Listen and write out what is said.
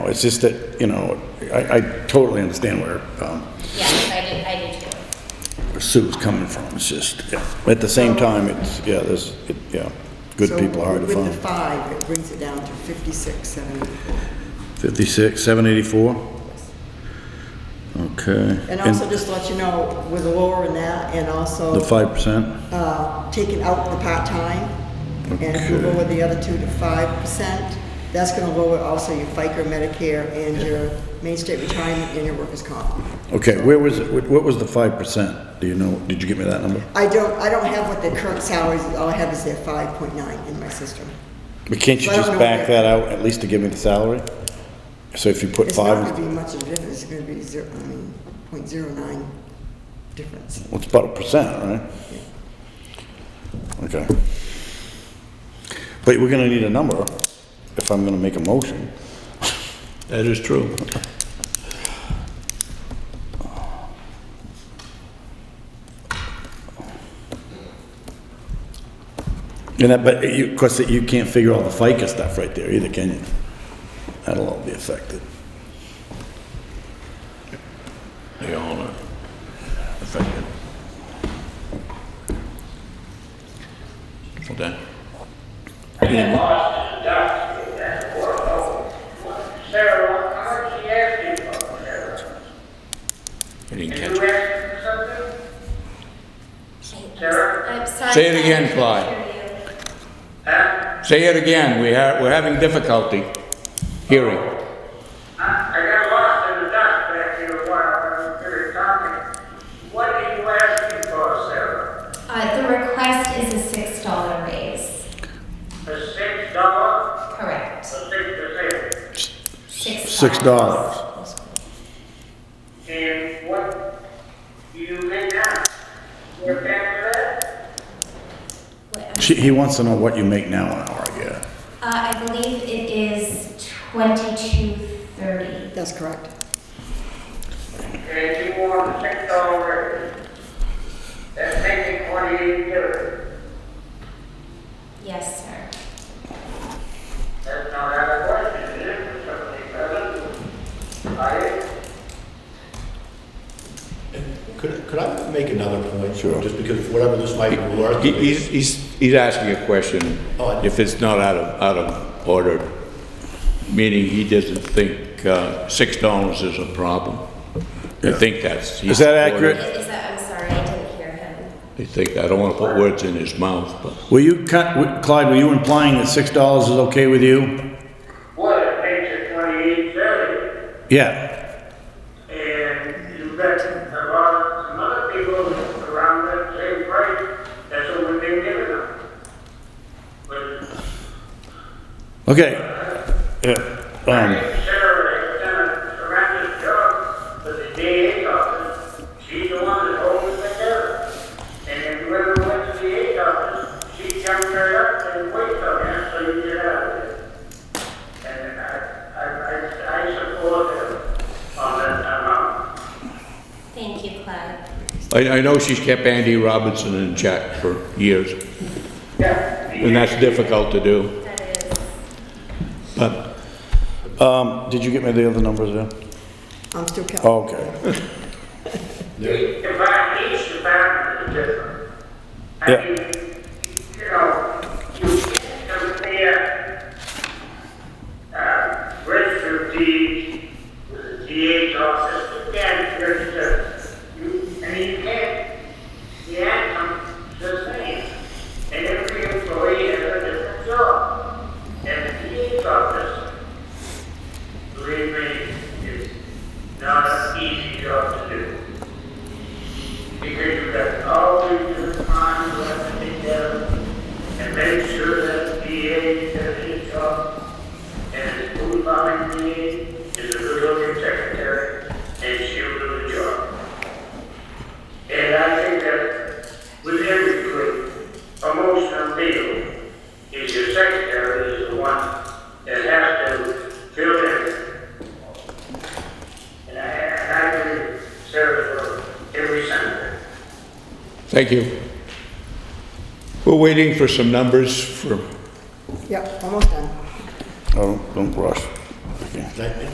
Oh, It's just that, you know, I, I totally understand where, um, Yes, I did, I did too. where Sue's coming from. It's just, yeah. But at the same time, it's, yeah, there's, it- yeah, good So people are hard to With the find. five, it brings it down to 56, 74. 56, 784? Okay. And also just to let you know, with lowering that and also The 5%? uh, taking out the part-time, and if you Okay. lower the other two to 5%, that's going to lower also your FICA, Medicare, and your Main State Retirement and your workers' comp. Okay, where was it, what was the 5%? Do you know, did you give me that number? I don't, I don't have what their current salaries, all I have is their 5.9 in my system. But can't you I don't just know back where- that out, at least to give me the salary? So if you put It's not going five, to be much of a difference, it's going to be zero, I mean, .09 difference. well, it's about a percent, right? Okay. But we're gonna need a number if I'm gonna make a motion. That is true. And that, but you, of course, you can't figure all the FICA stuff right there either, can you? That'll all be affected. They all are affected. Okay. Sarah, how much she asking for, Sarah? I didn't Did catch you it. ask for something? Sarah? I'm sorry. Say it I again, can't Clyde. hear you. Say it again, we have, we're having difficulty hearing. I I got lost in the dust back here a while, I was very talking. What are you asking for, Sarah? Uh, the request is a six dollar raise. A six dollar, Correct. a six percent? Six. Six dollars. And what do you make now? You're back to that? Wait, She, he wants to know what you make now an hour, I guess. Uh, I believe it is twenty-two thirty. That's correct. And you want a six dollar raise? That's making twenty-eight dollars. Yes, sir. That's not out of question, is it, for somebody present? I, Could, could I make another point? Sure. Just because whatever this might be worth. He- He's, he's, he's asking a question, if it's not out of, out of order, meaning he doesn't think uh, six dollars is a problem. I think that's. Is that accurate? Is is that, I'm sorry, I didn't hear him. I think, I don't want to put words in his mouth, but. Were you, cut- Clyde, were you implying that six dollars is okay with you? What, it makes it twenty-eight thirty, Yeah, and you bet a lot of, some other people around that same price, that's what we've been giving them. But okay. Yeah, I um, think Sarah has done a tremendous job with the DA's office, she's the one that holds it together. And if you ever went to the DA's office, she jumped right up and waited on you, so you get out of it. And I, I, I, I support her on that amount. Thank you, Clyde. I, I know she's kept Andy Robinson in check for years, Yeah. and that's difficult to do, That is, but um, did you get me the other numbers there? I'm still counting. Oh, Okay, Each department, each department is different. I Yeah. mean, you know, you can't compare, uh, Richard D., the DA's office, you can't, compare the- you, I mean, you can't, the outcome's the same. And every employee has a different job. And the DA's office, believe me, is not an easy job to do. Because you have always the time to have to take care of and make sure that the DA does his job. And the food buying DA is a good looking secretary and she'll do the job. And I think that with every group, emotional deal is your secretary is the one that has to fill in and I, and I do serve for every senator. thank you. We're waiting for some numbers for Yep, almost done. oh, don't rush. Okay. Thank you.